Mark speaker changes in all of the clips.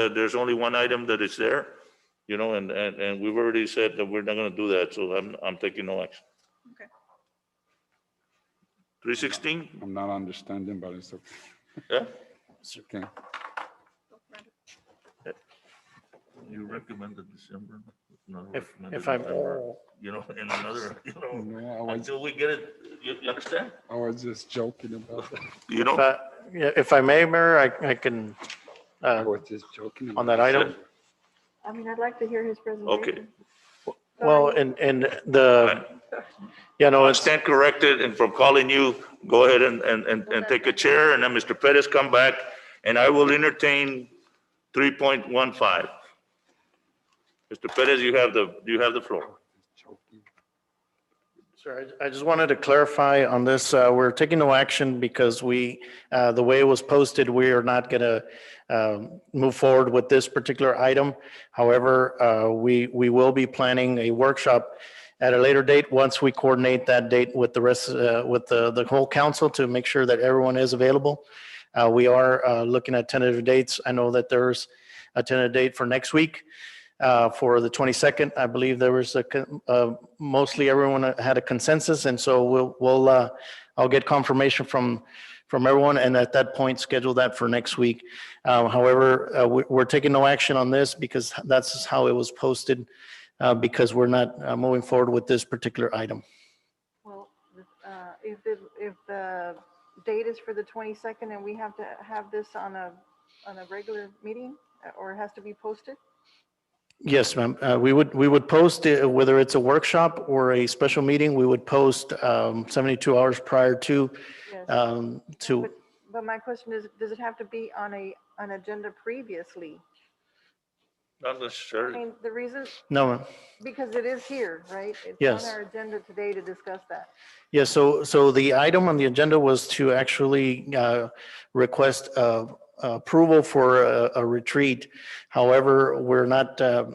Speaker 1: uh, there's only one item that is there, you know, and, and, and we've already said that we're not gonna do that, so I'm, I'm taking no action.
Speaker 2: Okay.
Speaker 1: Three sixteen,
Speaker 3: I'm not understanding, but it's okay.
Speaker 1: yeah?
Speaker 3: It's okay.
Speaker 1: You recommended December.
Speaker 4: If, if I'm, Mm-hmm.
Speaker 1: You know, in another, you know,
Speaker 3: No, I was,
Speaker 1: until we get it, you, you understand?
Speaker 3: I was just joking about that.
Speaker 1: You
Speaker 4: if
Speaker 1: know,
Speaker 4: I- yeah, if I may, Mayor, I, I can,
Speaker 3: I
Speaker 4: uh,
Speaker 3: was just joking.
Speaker 4: on
Speaker 3: about
Speaker 4: that item.
Speaker 2: I mean, I'd like to hear his presentation.
Speaker 4: Well, and, and the, you know,
Speaker 1: I
Speaker 4: it's,
Speaker 1: stand corrected and from calling you, go ahead and, and, and, and take a chair and then Mr. Pettis come back and I will entertain three point one five. Mr. Pettis, you have the, you have the floor.
Speaker 3: Joking.
Speaker 4: Sir, I I just wanted to clarify on this. uh, We're taking no action because we, uh, the way it was posted, we are not going to move forward with this particular item. However, uh, we, we will be planning a workshop at a later date, once we coordinate that date with the rest, uh, with the, the whole council to make sure that everyone is available. Uh, We are uh, looking at tentative dates. I know that there's a tentative date for next week uh, for the 22nd. I believe there was a, con- uh, mostly everyone had a consensus, and so we'll, we'll, uh, I'll get confirmation from, from everyone, and at that point, schedule that for next week. Um, However, uh, we- we're taking no action on this because that's how it was posted, uh, because we're not uh, moving forward with this particular item.
Speaker 2: Well, uh, if the, if the date is for the 22nd and we have to have this on a, on a regular meeting uh, or it has to be posted?
Speaker 4: Yes, ma'am. Uh, We would, we would post, it, whether it's a workshop or a special meeting, we would post um, 72 hours prior to,
Speaker 2: Yes.
Speaker 4: um, to.
Speaker 2: But- But my question is, does it have to be on a, an agenda previously?
Speaker 1: Not
Speaker 2: I
Speaker 1: necessarily.
Speaker 2: mean, the reason,
Speaker 4: No, ma'am.
Speaker 2: because it is here, right? It's
Speaker 4: Yes.
Speaker 2: on our agenda today to discuss that.
Speaker 4: Yeah, so, so the item on the agenda was to actually uh, request uh, approval for a a retreat. However, we're not uh,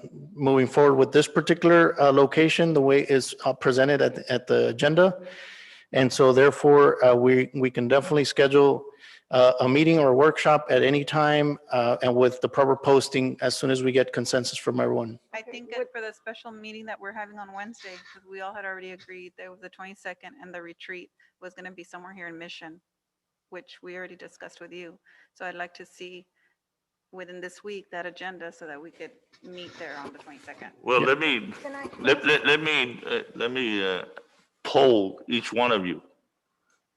Speaker 4: moving forward with this particular uh, location, the way it's uh, presented at, the- at the agenda. And so therefore, uh, we, we can definitely schedule uh, a meeting or workshop at any time uh, and with the proper posting as soon as we get consensus from everyone.
Speaker 5: I
Speaker 2: Okay,
Speaker 5: think
Speaker 2: what-
Speaker 5: for the special meeting that we're having on Wednesday, because we all had already agreed that it was the twenty-second and the retreat was gonna be somewhere here in Mission, which we already discussed with you. So I'd like to see within this week that agenda so that we could meet there on the twenty-second.
Speaker 1: Well, let me,
Speaker 2: Can I?
Speaker 1: let, let, let me, uh, let me uh, poll each one of you.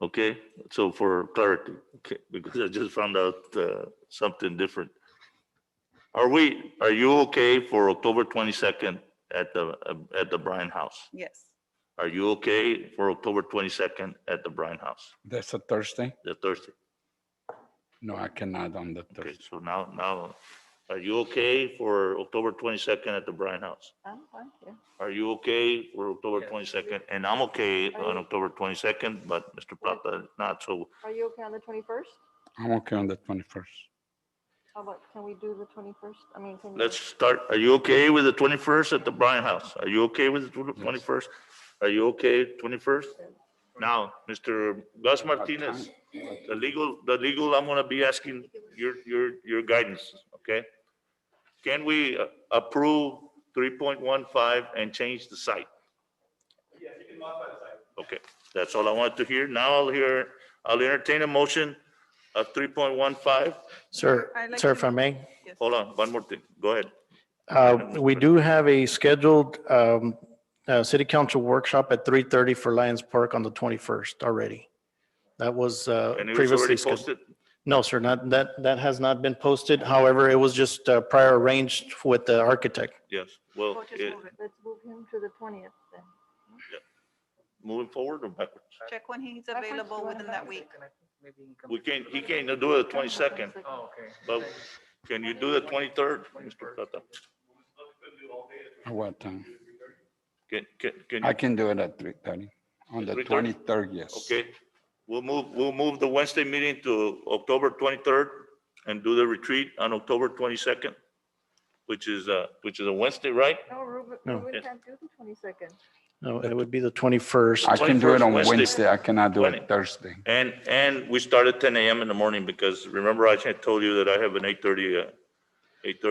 Speaker 1: Okay, so for clarity, okay, because I just found out uh, something different. Are we, are you okay for October twenty-second at the, uh, at the Bryan House?
Speaker 5: Yes,
Speaker 1: Are you okay for October twenty-second at the Bryan House,
Speaker 3: That's a Thursday?
Speaker 1: the Thursday?
Speaker 3: No, I cannot on the
Speaker 1: Okay,
Speaker 3: Thursday.
Speaker 1: so now, now, are you okay for October twenty-second at the Bryan House?
Speaker 2: I'm fine, yeah.
Speaker 1: Are you okay for October twenty-second? And I'm okay on
Speaker 2: I-
Speaker 1: October twenty-second, but Mr. Plata is not, so
Speaker 2: Are you okay on the 21st?
Speaker 3: I'm okay on the 21st.
Speaker 2: How about, can we do the 21st? I mean, can you?
Speaker 1: let's start. Are you okay with the twenty-first at the Bryan House? Are you okay with the twenty-first? Are you okay twenty-first? Now, Mr. Gus Martinez, the legal, the legal, I'm gonna be asking your, your, your guidance, okay? Can we uh, approve three point one five and change the site? Yes, you can modify the site. Okay, that's all I wanted to hear. Now I'll hear, I'll entertain a motion of three point one five.
Speaker 4: Sir,
Speaker 5: I'd like
Speaker 4: sir,
Speaker 5: to
Speaker 4: if I may?
Speaker 5: yes.
Speaker 1: Hold on, one more thing. Go ahead.
Speaker 4: Uh, We do have a scheduled um, uh, city council workshop at 3:30 for Lions Park on the 21st already. That was uh,
Speaker 1: And it was
Speaker 4: previously
Speaker 1: already
Speaker 4: scheduled.
Speaker 1: posted.
Speaker 4: No, sir, not, that, that has not been posted. However, it was just uh, prior arranged with the architect.
Speaker 1: Yes, well,
Speaker 5: We'll just
Speaker 1: it-
Speaker 5: move it.
Speaker 2: Let's move him to the 20th then.
Speaker 1: moving forward or backwards?
Speaker 5: Check when he's
Speaker 2: Backwards, you
Speaker 5: available
Speaker 2: wanna
Speaker 5: within that
Speaker 2: backwards?
Speaker 5: week.
Speaker 1: We can't, he can't do it the twenty-second,
Speaker 6: Oh, okay.
Speaker 1: but can you do the twenty-third, Mr. Plata?
Speaker 3: At what time?
Speaker 1: Can, can, can
Speaker 3: I
Speaker 1: you?
Speaker 3: can do it at 3:30. On the
Speaker 1: 3:30?
Speaker 3: 23rd, yes.
Speaker 1: Okay, we'll move, we'll move the Wednesday meeting to October twenty-third and do the retreat on October twenty-second, which is, uh, which is a Wednesday, right?
Speaker 2: No, Ruben,
Speaker 4: No.
Speaker 2: Ruben
Speaker 1: Yes.
Speaker 2: can't do the 22nd.
Speaker 4: No, it would be the 21st.
Speaker 3: I can do it
Speaker 1: 21st
Speaker 3: on
Speaker 1: Wednesday.
Speaker 3: Wednesday. I cannot do
Speaker 1: Twenty.
Speaker 3: it Thursday.
Speaker 1: And, and we start at ten AM in the morning because remember I had told you that I have an eight-thirty, uh, eight thirty